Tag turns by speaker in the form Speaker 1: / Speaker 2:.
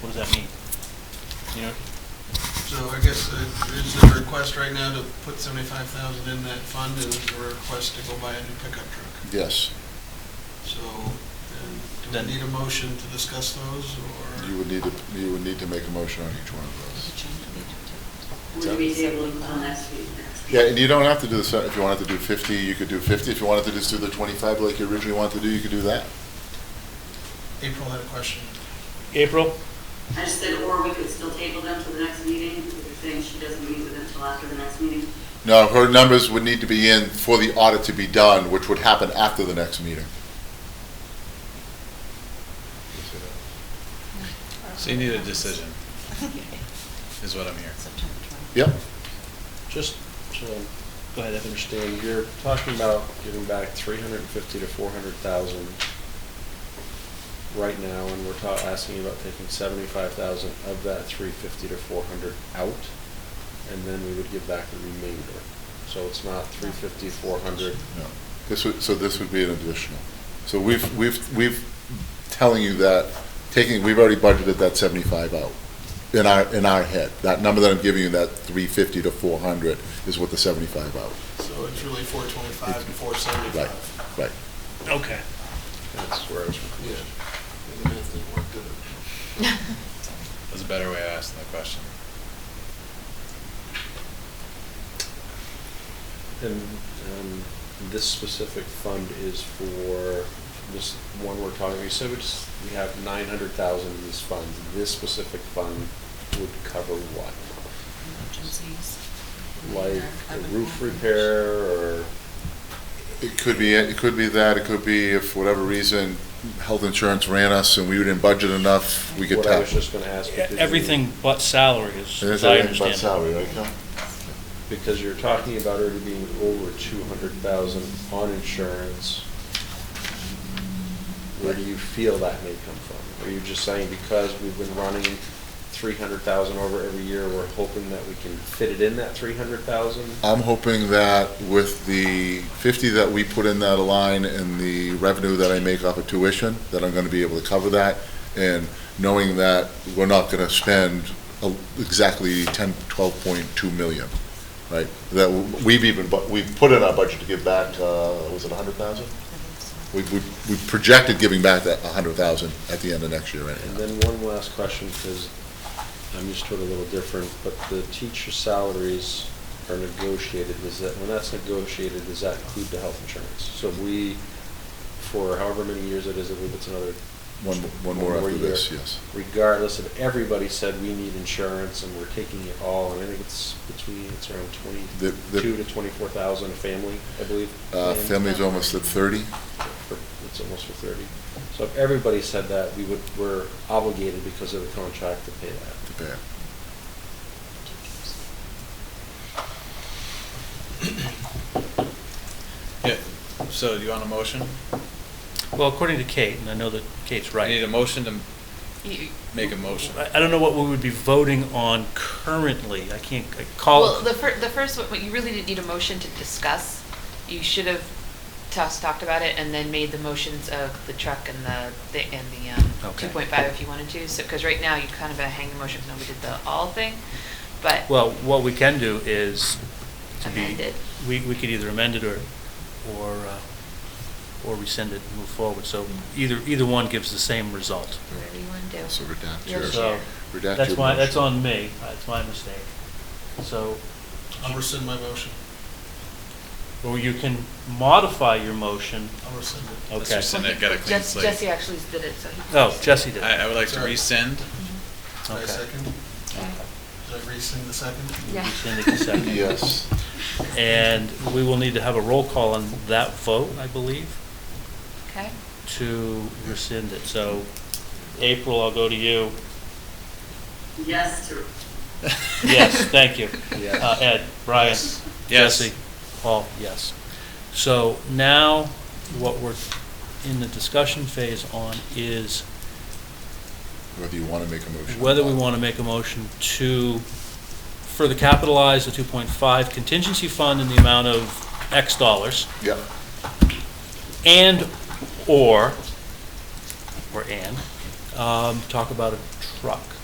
Speaker 1: What does that mean? You know,
Speaker 2: So I guess uh, it's a request right now to put seventy-five thousand in that fund and it's a request to go buy a new pickup truck.
Speaker 3: Yes,
Speaker 2: So, um, do
Speaker 1: Then-
Speaker 2: we need a motion to discuss those or?
Speaker 3: you would need to, you would need to make a motion on each one of those.
Speaker 4: Would we be able to on next week?
Speaker 3: Yeah, and you don't have to do the, se- if you wanted to do 50, you could do 50. If you wanted to just do the 25 like you originally wanted to do, you could do that.
Speaker 2: April had a question.
Speaker 1: April,
Speaker 4: I just said, or we could still table them till the next meeting, because you're saying she doesn't meet with them till after the next meeting.
Speaker 3: No, her numbers would need to be in for the audit to be done, which would happen after the next meeting.
Speaker 5: So you need a decision, is what I'm hearing.
Speaker 3: Yep,
Speaker 6: Just so I understand, you're talking about giving back three hundred and fifty to four hundred thousand right now, and we're ta- asking about taking seventy-five thousand of that three fifty to four hundred out, and then we would give back the remainder. So it's not three fifty, four hundred.
Speaker 3: no. This would, so this would be an additional. So we've, we've, we've telling you that, taking, we've already budgeted that 75 out in our, in our head. That number that I'm giving you, that 350 to 400 is what the 75 out.
Speaker 2: So it's really four twenty-five and four
Speaker 3: Right,
Speaker 2: seventy-five.
Speaker 3: right.
Speaker 1: okay.
Speaker 6: That's where I was confused.
Speaker 2: Yeah.
Speaker 5: That's a better way of asking the question.
Speaker 6: And um, this specific fund is for this one we're talking, you said we just, we have nine hundred thousand in this fund. This specific fund would cover what? Like a roof repair or,
Speaker 3: It could be, it could be that, it could be if for whatever reason, health insurance ran us and we didn't budget enough, we could
Speaker 6: what I
Speaker 3: tap.
Speaker 6: was just gonna ask. because you-
Speaker 1: E, Everything but salary is,
Speaker 3: It is
Speaker 1: as I
Speaker 3: everything but
Speaker 1: understand it.
Speaker 3: salary, right, Cal?
Speaker 6: Because you're talking about already being over two hundred thousand on insurance. Where do you feel that may come from? Are you just saying because we've been running three hundred thousand over every year, we're hoping that we can fit it in that three hundred thousand?
Speaker 3: I'm hoping that with the fifty that we put in that line and the revenue that I make off of tuition, that I'm gonna be able to cover that. And knowing that we're not gonna spend a- exactly ten, twelve point two million, right? That we've even, bu- we've put in our budget to give back, uh, was it a hundred thousand? We, we, we projected giving back that a hundred thousand at the end of next year
Speaker 6: And
Speaker 3: anyhow.
Speaker 6: then one last question, because I'm used to it a little different, but the teacher salaries are negotiated, is that, when that's negotiated, does that include the health insurance? So we, for however many years it is, I believe it's another.
Speaker 3: One, one more after this, yes.
Speaker 6: Regardless of, everybody said we need insurance and we're taking it all, and I think it's between, it's around
Speaker 3: The- the-
Speaker 6: twenty-two to twenty-four thousand a family, I believe.
Speaker 3: Uh,
Speaker 6: And-
Speaker 3: family's almost at thirty.
Speaker 6: for- it's almost for thirty. So if everybody said that, we would, we're obligated because of the contract to pay that.
Speaker 3: to pay it.
Speaker 5: Yeah, so do you want a motion?
Speaker 1: Well, according to Kate, and I know that Kate's right.
Speaker 5: You need a motion to make a motion.
Speaker 1: I I don't know what we would be voting on currently. I can't I call.
Speaker 7: Well, the fir, the first, one- you really didn't need a motion to discuss. You should have just talked about it and then made the motions of the truck and the, the- and the, um,
Speaker 1: Okay.
Speaker 7: two point five if you wanted to. So, because right now you kind of uh, hang the motion, because we did the all thing, but.
Speaker 1: Well, what we can do is to be.
Speaker 7: Amend it.
Speaker 1: We, we could either amend it or, or, uh, or rescind it and move forward. So either, either one gives the same result.
Speaker 7: Whatever you want to do.
Speaker 3: So redact
Speaker 7: Your
Speaker 3: yours.
Speaker 7: chair.
Speaker 1: So
Speaker 3: Redact
Speaker 1: that's
Speaker 3: your
Speaker 1: why, that's
Speaker 3: motion.
Speaker 1: on me. That's my mistake. So,
Speaker 2: I'll rescind my motion.
Speaker 1: or you can modify your motion.
Speaker 2: I'll rescind it.
Speaker 5: Let's
Speaker 1: Okay.
Speaker 5: rescind it, get a clean
Speaker 7: Jess-
Speaker 5: slate.
Speaker 7: Jesse actually did it, so he.
Speaker 1: Oh, Jesse did.
Speaker 5: I, I would like to
Speaker 2: Sorry.
Speaker 5: rescind.
Speaker 2: Did I
Speaker 1: Okay.
Speaker 2: second?
Speaker 7: Okay.
Speaker 2: Did I rescind the second?
Speaker 7: Yeah.
Speaker 1: Rescind it to second.
Speaker 3: Yes.
Speaker 1: And we will need to have a roll call on that vote, I believe,
Speaker 7: Okay.
Speaker 1: to rescind it. So April, I'll go to you.
Speaker 4: Yes, to,
Speaker 1: Yes, thank you.
Speaker 6: Yes.
Speaker 1: Uh, Ed, Brian,
Speaker 5: Yes.
Speaker 1: Jesse, Paul, yes. So now what we're in the discussion phase on is
Speaker 3: Whether you want to make a motion. or
Speaker 1: whether we
Speaker 3: not.
Speaker 1: want to make a motion to further capitalize the 2.5 contingency fund in the amount of X dollars
Speaker 3: Yeah,
Speaker 1: and/or, or and, um, talk about a truck.